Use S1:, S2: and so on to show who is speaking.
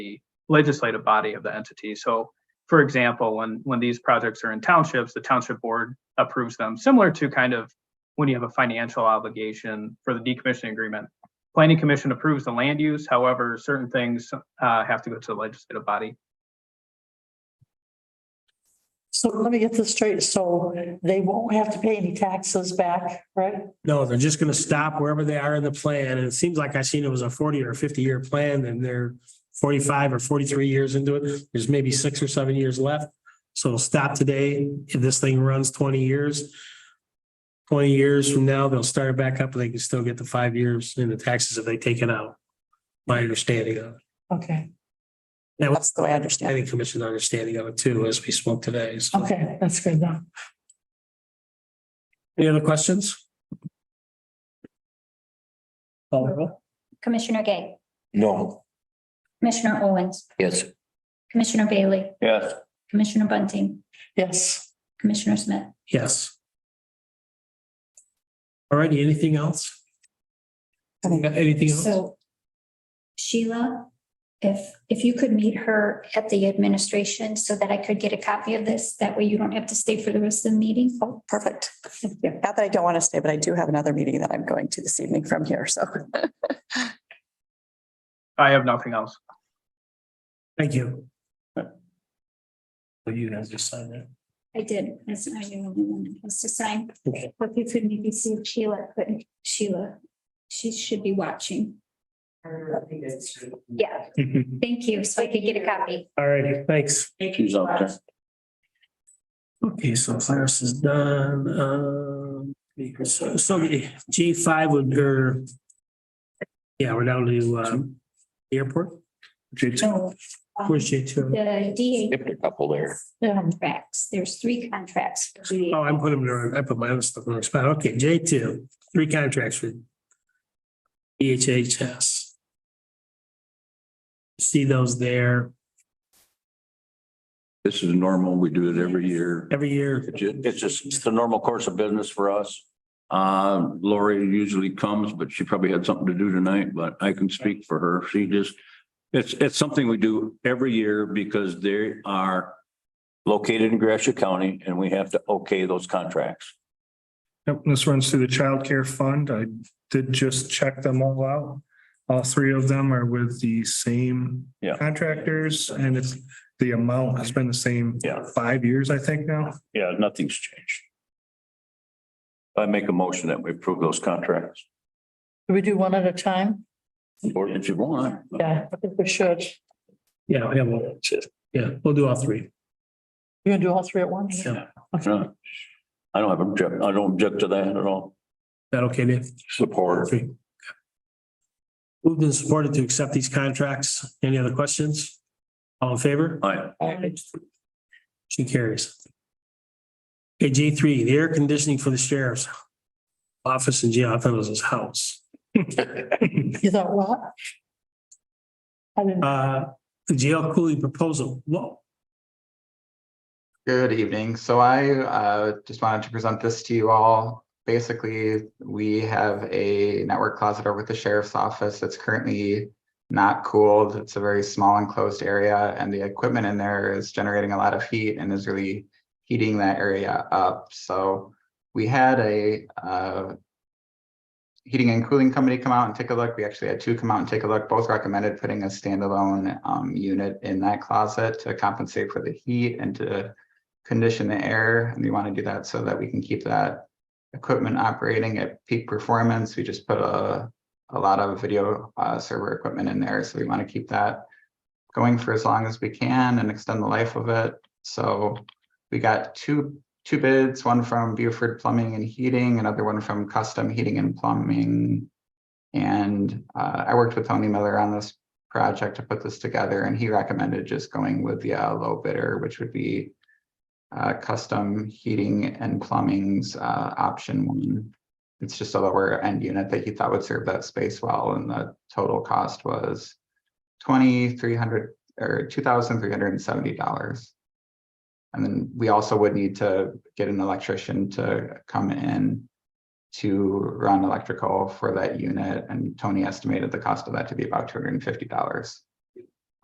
S1: legislative body of the entity. So, for example, when when these projects are in townships, the township board approves them, similar to kind of when you have a financial obligation for the decommissioning agreement. Planning commission approves the land use, however, certain things uh, have to go to the legislative body.
S2: So let me get this straight. So they won't have to pay any taxes back, right?
S3: No, they're just gonna stop wherever they are in the plan, and it seems like I seen it was a forty or fifty year plan, and they're forty-five or forty-three years into it, there's maybe six or seven years left. So it'll stop today, if this thing runs twenty years. Twenty years from now, they'll start it back up, and they can still get the five years in the taxes if they take it out. My understanding of, it.
S2: Okay,
S3: that was
S4: That's the way I
S3: the
S4: understand it.
S3: planning commission understanding of it too, as we spoke today, so.
S2: okay, that's good now.
S3: Any other questions? Call the roll.
S5: Commissioner Gay,
S6: No.
S5: Commissioner Owens,
S6: Yes.
S5: Commissioner Bailey,
S6: Yes.
S5: Commissioner Bunting,
S2: Yes,
S5: Commissioner Smith.
S3: Yes. All righty, anything else? Anything else?
S5: So Sheila, if, if you could meet her at the administration so that I could get a copy of this, that way you don't have to stay for the rest of the meeting.
S4: Oh, perfect. Not that I don't want to stay, but I do have another meeting that I'm going to this evening from here, so.
S1: I have nothing else.
S3: Thank you. So you guys just signed that.
S5: I did, that's not the only one that has to sign.
S3: Okay.
S5: But you could maybe see if Sheila, but Sheila, she should be watching. Yeah, thank you, so I could get a copy.
S3: All righty, thanks.
S6: She's up there.
S3: Okay, so Cyrus is done. Um, so, so J five would, or yeah, we're down to, um, the airport. J
S5: So. um,
S3: Where's J two?
S5: The DA
S6: Skipped a couple there.
S2: yeah,
S5: contracts, there's three contracts. for DA.
S3: Oh, I'm putting them there. I put my other stuff in the wrong spot. Okay, J two, three contracts E for EHHS. See those there
S7: This is normal. We do it every year.
S3: every year.
S7: It's ju- it's just, it's the normal course of business for us. Uh, Lori usually comes, but she probably had something to do tonight, but I can speak for her. She just, it's, it's something we do every year because they are located in Gratiot County and we have to okay those contracts.
S8: Yep, this runs through the child care fund. I did just check them all out. All three of them are with the same
S7: Yeah.
S8: contractors and it's, the amount has been the same.
S7: Yeah.
S8: Five years, I think now.
S7: Yeah, nothing's changed. I make a motion that we approve those contracts.
S2: Do we do one at a time?
S7: Or if you want.
S2: Yeah, I think we should.
S3: Yeah, we have one. Yeah, we'll do all three.
S2: You're gonna do all three at once?
S3: Yeah.
S7: Yeah. I don't have object, I don't object to that at all.
S3: That okay, Dave?
S7: Support.
S3: Three. Moved and supported to accept these contracts. Any other questions? All in favor?
S7: Aye.
S3: She carries. Okay, J three, the air conditioning for the sheriff's office and jail. I thought it was his house.
S2: You thought what? I didn't,
S3: Uh, the jail cooling proposal. Whoa,
S9: Good evening. So I uh, just wanted to present this to you all. Basically, we have a network closet over at the sheriff's office that's currently not cooled. It's a very small enclosed area, and the equipment in there is generating a lot of heat and is really heating that area up. So we had a uh, heating and cooling company come out and take a look. We actually had two come out and take a look. Both recommended putting a standalone um, unit in that closet to compensate for the heat and to condition the air, and we want to do that so that we can keep that equipment operating at peak performance. We just put a, a lot of video uh, server equipment in there, so we want to keep that going for as long as we can and extend the life of it. So we got two, two bids, one from Buford Plumbing and Heating, another one from Custom Heating and Plumbing. And uh, I worked with Tony Miller on this project to put this together, and he recommended just going with the uh, low bidder, which would be uh, custom heating and plumbing's uh, option one. It's just a lower end unit that he thought would serve that space well, and the total cost was twenty three hundred or two thousand three hundred and seventy dollars. And then we also would need to get an electrician to come in to run electrical for that unit, and Tony estimated the cost of that to be about two hundred and fifty dollars.